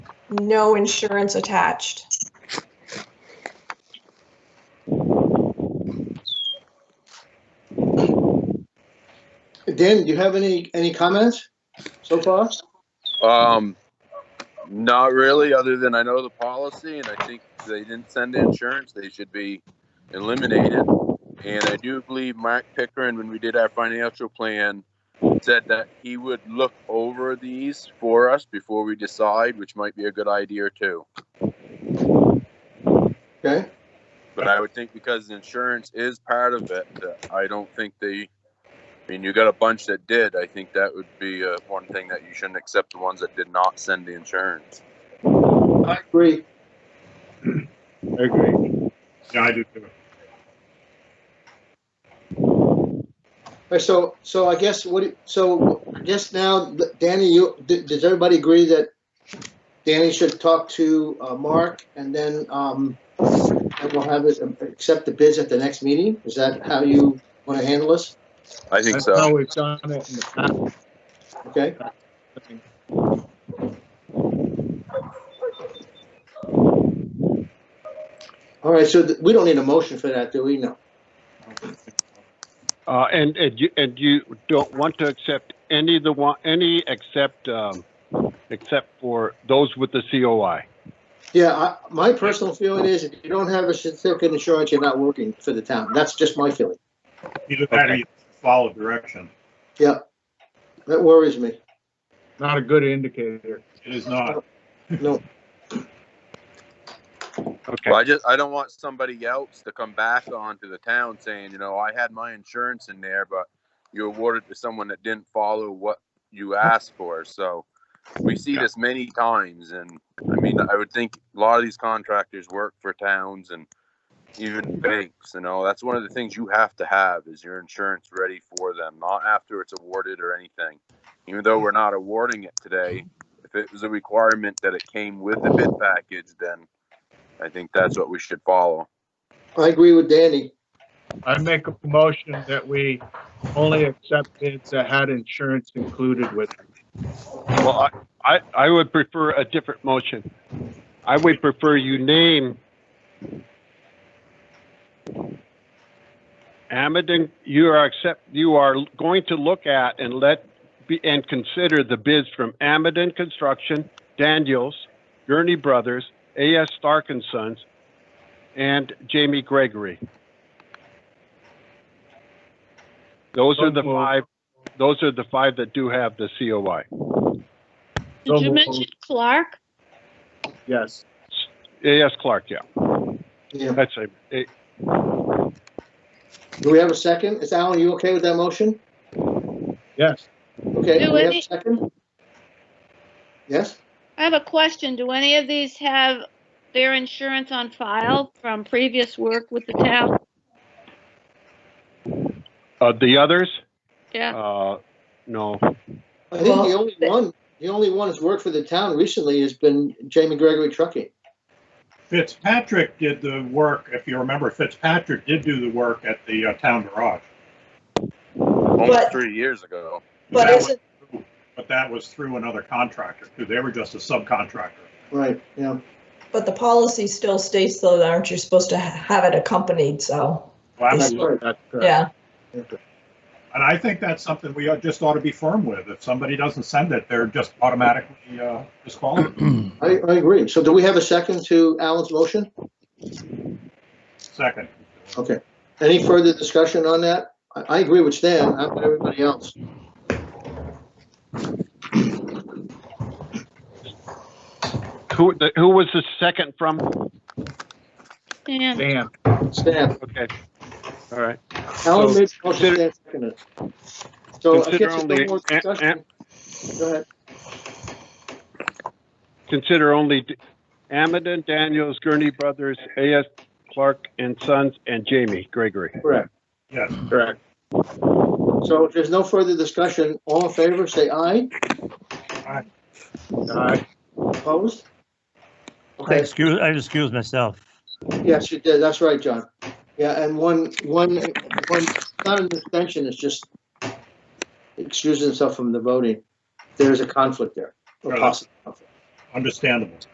no insurance attached. Dan, do you have any, any comments so far? Um, not really, other than I know the policy and I think they didn't send insurance, they should be eliminated. And I do believe Mark Pickering, when we did our financial plan, said that he would look over these for us before we decide, which might be a good idea too. Okay, But I would think because insurance is part of it, that I don't think they, I mean, you got a bunch that did, I think that would be, uh, one thing that you shouldn't accept the ones that did not send the insurance. I agree. I agree. Yeah, I do too. All right, So, so I guess what, do- so just now, Danny, you, d- does everybody agree that Danny should talk to uh, Mark and then, um, and we'll have it, um, accept the bids at the next meeting? Is that how you want to handle this? I think That's so. how we've done it in the Okay, past. all right, so th- we don't need a motion for that, do we? No. Uh, and, and you, and you don't want to accept any of the one, any except, um, except for those with the COI. Yeah, I, my personal feeling is if you don't have a certificate of insurance, you're not working for the town. That's just my feeling. Either that or you follow direction. That worries me. Not a good indicator. It is not. No, Okay. Well, I just, I don't want somebody else to come back onto the town saying, you know, I had my insurance in there, but you awarded to someone that didn't follow what you asked for. So we see this many times and, I mean, I would think a lot of these contractors work for towns and even banks, you know, that's one of the things you have to have is your insurance ready for them, not after it's awarded or anything. Even though we're not awarding it today, if it was a requirement that it came with the bid package, then I think that's what we should follow. I agree with Danny. I make a motion that we only accept bids that had insurance included with. it. Well, I, I, I would prefer a different motion. I would prefer you name Amadon, you are accept, you are going to look at and let, be and consider the bids from Amadon Construction, Daniels, Gurney Brothers, A.S. Stark and Sons, and Jamie Gregory. Those are the five, those are the five that do have the COI. So Did you we'll- mention Clark? Yes. A.S. Clark, yeah. Yeah. That's a, it- Do we have a second? Is Alan, you okay with that motion? Yes. Okay, do we have a Wait. second? Yes? I have a question. Do any of these have their insurance on file from previous work with the town? uh, the others, Yeah, uh, no. I think the only one, the only one that's worked for the town recently has been Jamie Gregory Trucking. Fitzpatrick did the work, if you remember, Fitzpatrick did do the work at the uh, town garage. Almost But- three years ago. But That isn't, was- But that was through another contractor, too. They were just a subcontractor. Right, yeah. but the policy still states though, that aren't you supposed to ha- have it accompanied, so, Well, That's absolutely. right. That's correct. yeah. And I think that's something we ought- just ought to be firm with. If somebody doesn't send it, they're just automatically uh, disqualified. I, I agree. So do we have a second to Alan's motion? Second. Okay. Any further discussion on that? I, I agree with Stan, how about everybody else? Who, the- who was the second from? Dan, Dan, Stan, Okay, all right. Alan So made the motion, consider- Stan seconded. So I Consider guess only- there's no more eh, eh. discussion. Go ahead. Consider only D- Amadon, Daniels, Gurney Brothers, A.S. Clark and Sons, and Jamie Gregory. Correct. Yes. correct. So if there's no further discussion, all in favor, say aye. Aye. Opposed? I Okay, excuse, I excuse myself. yes, you did. That's right, John. Yeah, and one, one, one, not an extension, it's just excusing himself from the voting. There is a conflict there, a Right. possible conflict. Understandable.